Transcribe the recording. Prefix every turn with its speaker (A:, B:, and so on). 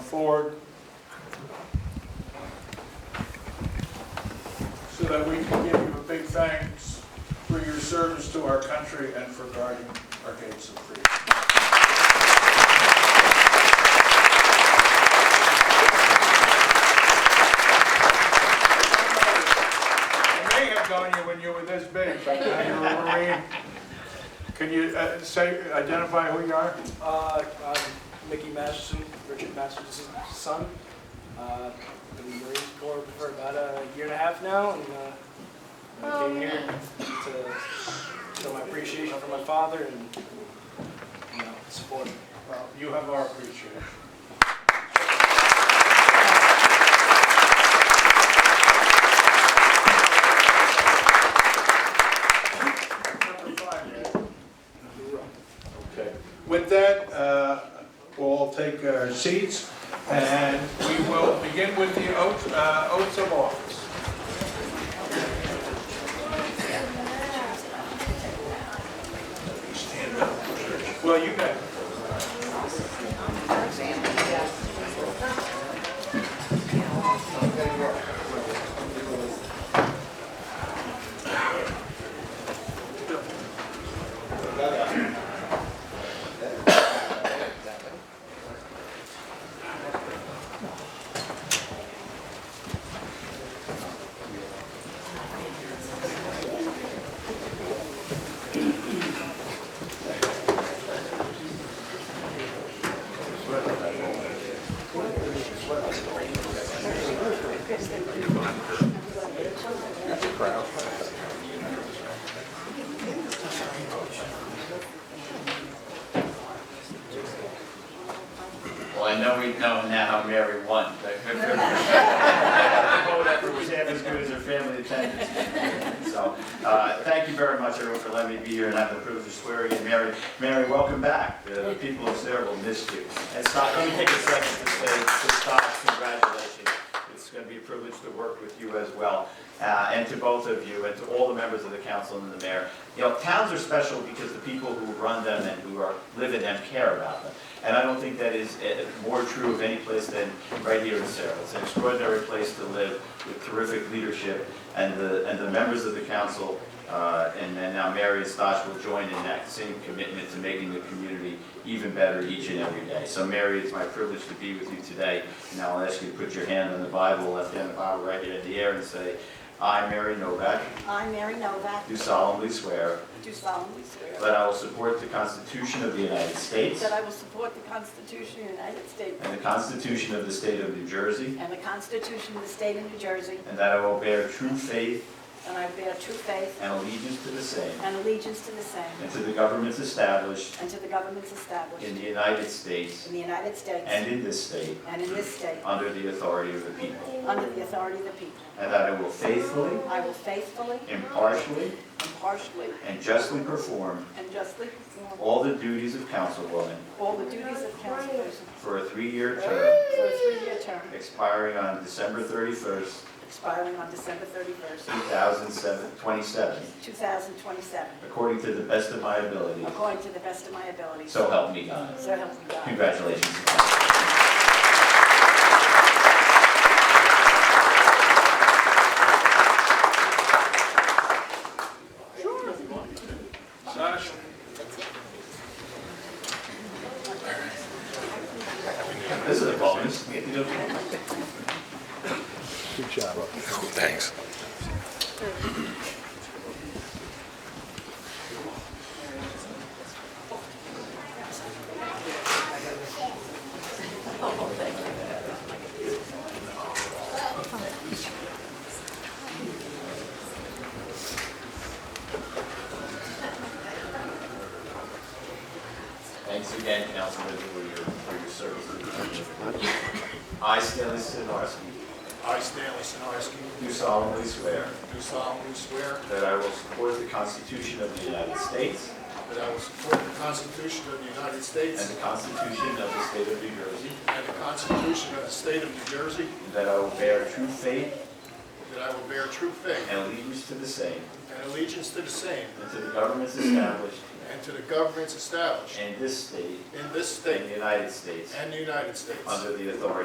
A: forward so that we can give you a big thanks for your service to our country and for guarding our gates of freedom. I may have known you when you were this big, but now you're a Marine. Can you uh, say, identify who you are?
B: Uh, I'm Mickey Masterson, Richard Masterson's son. Uh, been in the Marine Corps for about a year and a half now, and uh, I came here to show my appreciation for my father and you know, support him.
A: Well, you have our appreciation. Number five, Ed. Okay. With that, uh, we'll all take our seats, and we will begin with the oath, uh, oaths of office. Well, you got it.
C: Well, I know we know now Mary won, but good for her. Her vote effort was half as good as her family attendance. So, uh, thank you very much, everyone, for letting me be here and have the privilege of swearing in. Mary, Mary, welcome back. The people of Sarah will miss you. And Stock, let me take a second to say to Stock, congratulations. It's going to be a privilege to work with you as well, uh, and to both of you, and to all the members of the council and the mayor. You know, towns are special because the people who run them and who are, live in them care about them. And I don't think that is eh, more true of any place than right here in Sarah. It's an extraordinary place to live with terrific leadership, and the, and the members of the council, uh, and then now Mary and Stosh will join in that same commitment to making the community even better each and every day. So Mary, it's my privilege to be with you today, and I'll ask you to put your hand on the Bible, left hand on the Bible, right hand in the air, and say, "I, Mary Novak,
D: I, Mary Novak,
C: do solemnly swear
D: do solemnly swear
C: that I will support the Constitution of the United States
D: that I will support the Constitution of the United States
C: and the Constitution of the State of New Jersey,
D: and the Constitution of the State of New Jersey,
C: and that I will bear true faith
D: and I bear true faith
C: and allegiance to the same,
D: and allegiance to the same
C: and to the governments established
D: and to the governments established
C: in the United States
D: in the United States
C: and in this state,
D: and in this state,
C: under the authority of the people,
D: under the authority of the people.
C: and that I will faithfully,
D: I will faithfully,
C: impartially,
D: impartially,
C: and justly perform
D: and justly perform
C: all the duties of councilwoman
D: all the duties of councilperson
C: for a three-year term
D: for a three-year term
C: expiring on December 31st,
D: expiring on December 31st,
C: 2027,
D: 2027,
C: according to the best of my ability.
D: according to the best of my ability.
C: So help me God.
D: So help me God.
C: Congratulations.
A: Sash?
C: This is a bonus.
E: Thanks.
C: Thanks again, Councilman, for your, for your service. I, Stanley Sinarski,
A: I, Stanley Sinarski,
C: do solemnly swear
A: do solemnly swear
C: that I will support the Constitution of the United States
A: that I will support the Constitution of the United
C: and
A: States
C: the Constitution of the State of New Jersey,
A: and the Constitution of the State of New Jersey,
C: and that I will bear true faith
A: that I will bear true faith
C: and allegiance to the same,
A: and allegiance to the same
C: and to the governments established
A: and to the governments established
C: in this state
A: in this
C: and the
A: state
C: United States
A: and the United States.
C: under the authority